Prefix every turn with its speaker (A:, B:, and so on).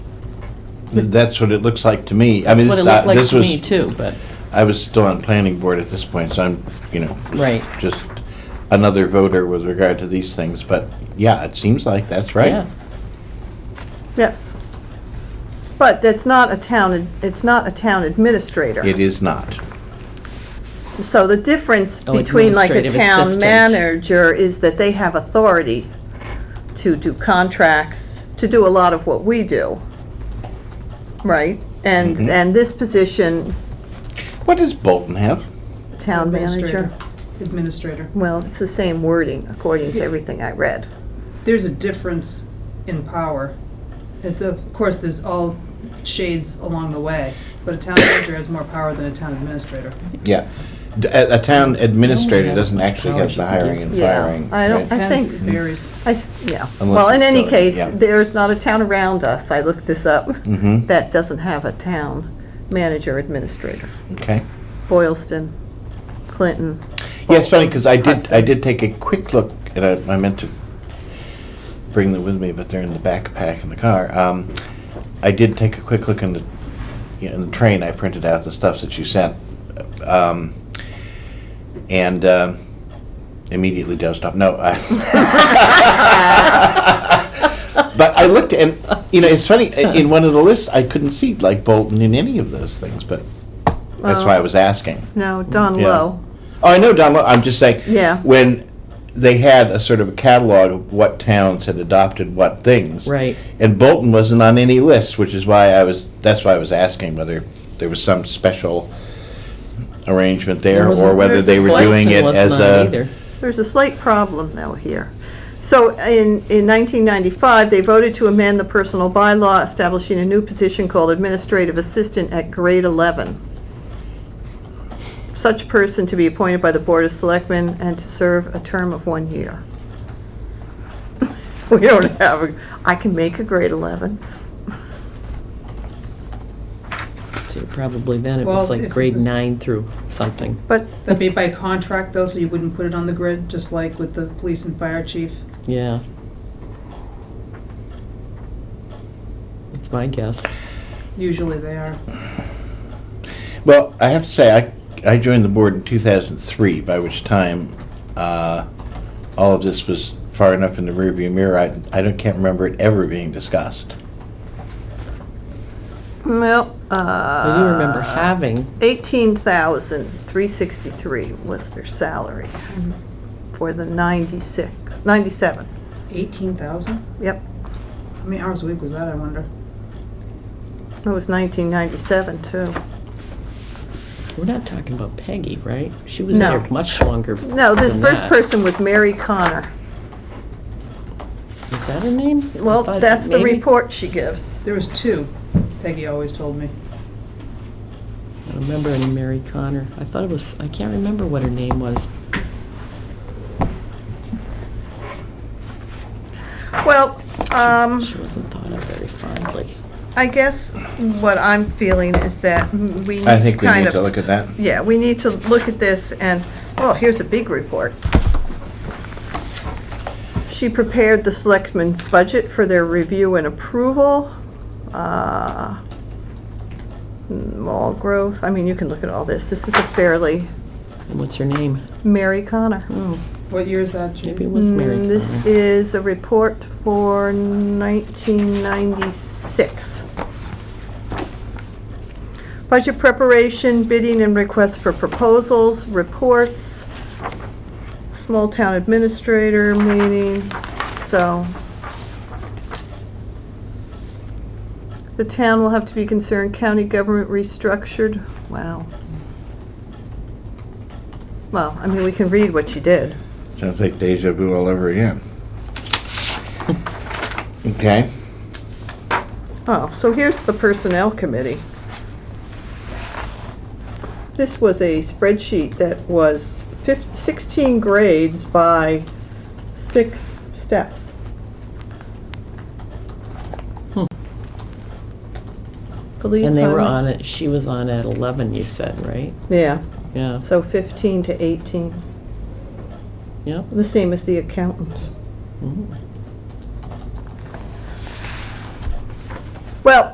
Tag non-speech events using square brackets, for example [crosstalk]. A: That's what it looks like to me. I
B: That's
A: mean,
B: what
A: this- uh,
B: it looked like
A: this
B: to
A: was-
B: me too, but,
A: I was still on planning board at this point, so I'm, you know,
B: Right.
A: just another voter with regard to these things, but yeah, it seems like that's right.
B: yeah.
C: Yes. But it's not a town, it's not a town administrator.
A: It is not.
C: So the difference
B: Oh,
C: between like a
B: administrative
C: town
B: assistant.
C: manager is that they have authority to do contracts, to do a lot of what we do. Right? And, and this position,
A: What does Bolton have?
C: town
D: Administrator.
C: manager,
D: Administrator.
C: well, it's the same wording according to everything I read.
D: There's a difference in power. It- Of course, there's all shades along the way, but a town manager has more power than a town administrator.
A: Yeah. D- A, a
B: Oh
A: town administrator
B: have
A: doesn't
B: much
A: actually
B: power
A: have
B: she
A: the
B: can give.
A: hiring and
C: Yeah,
A: firing.
C: I don't-
A: right?
C: I think-
D: Depends, it varies.
C: I, th- yeah,
A: Unless
C: well, in
A: it's
C: any
A: really-
C: case,
A: yeah.
C: there's not a town around us, I looked this up,
A: Mhm.
C: that doesn't have a town manager administrator.
A: Okay.
C: Boylston, Clinton.
A: Yeah, it's funny, because I did,
C: Hudson.
A: I did take a quick look, and I, I meant to bring them with me, but they're in the backpack in the car. Um, I did take a quick look in the, you know, in the train, I printed out the stuff that you sent. Um, and, um, immediately dozed off, no. I- [laughs] But I looked, and, you know, it's funny, i- in one of the lists, I couldn't see, like, Bolton in any of those things, but that's why I
C: Well-
A: was asking.
C: No, Don
A: Yeah.
C: Lowe.
A: Oh, I know, Don. Lo- I'm just saying.
C: Yeah.
A: When they had a sort of a catalog of what towns had adopted what things.
B: Right.
A: And Bolton wasn't on any list, which is why I was. That's why I was asking whether there was some special arrangement there,
B: There wasn't-
A: or whether
C: There's
A: they
C: a
A: were
C: Flexing
A: doing it
B: was
A: as
B: not
A: a.
B: either.
C: There's a slight problem though here. So in, in 1995, they voted to amend the personal bylaw establishing a new position called administrative assistant at grade 11. Such person to be appointed by the Board of Selectmen and to serve a term of one year. [laughs] We don't have, a- I can make a grade 11.
B: So Probably then it
D: Well,
B: was
D: if
B: like
D: it's
B: grade
D: a s-
B: nine through something.
C: But
D: That'd be by contract though, so you wouldn't put it on the grid, just like with the police and fire chief.
B: Yeah. That's my guess.
D: Usually they are.
A: Well, I have to say, I I joined the board in 2003, by which time uh, all of this was far enough in the rearview mirror. I I don't can't remember it ever being discussed.
C: Well,
B: I
C: uh,
B: do remember having,
C: 18,363 was their salary for the 96, 97,
D: Eighteen thousand?
C: yep.
D: How many hours a week was that, I wonder?
C: It was 1997, too.
B: we're not talking about Peggy, right? She was
C: No.
B: there much longer
C: No, this
B: than
C: first
B: that.
C: person was Mary Connor.
B: Is that her name? I
C: Well,
B: thought
C: that's the
B: maybe-
C: report she gives.
D: There was two, Peggy always told me.
B: I don't remember any Mary Connor. I thought it was, I can't remember what her name was.
C: Well, um,
B: She wasn't thought of very fondly.
C: I guess what I'm feeling is that we need to kind of...
A: I think we need to look at that.
C: Yeah, we need to look at this and, oh, here's a big report. She prepared the selectmen's budget for their review and approval. Uh, Mall growth, I mean, you can look at all this. This is a fairly
B: And what's her name?
C: Mary Connor.
B: Oh,
D: What year is that, Judy?
B: maybe it was Mary Connor.
C: Mm, This is a report for 1996. Budget preparation, bidding and requests for proposals, reports, small town administrator meeting, so. The town will have to be concerned, county government restructured, wow. Well, I mean, we can read what she did.
A: Sounds like deja vu all over again. Okay.
C: Oh, so here's the Personnel Committee. This was a spreadsheet that was fif- 16 grades by six steps. Police
B: Hmm. And they were
C: highway-
B: on it, she was on at 11, you said, right?
C: Yeah,
B: Yeah,
C: so 15 to 18,
B: yeah.
C: the same as the accountant.
B: Mhm.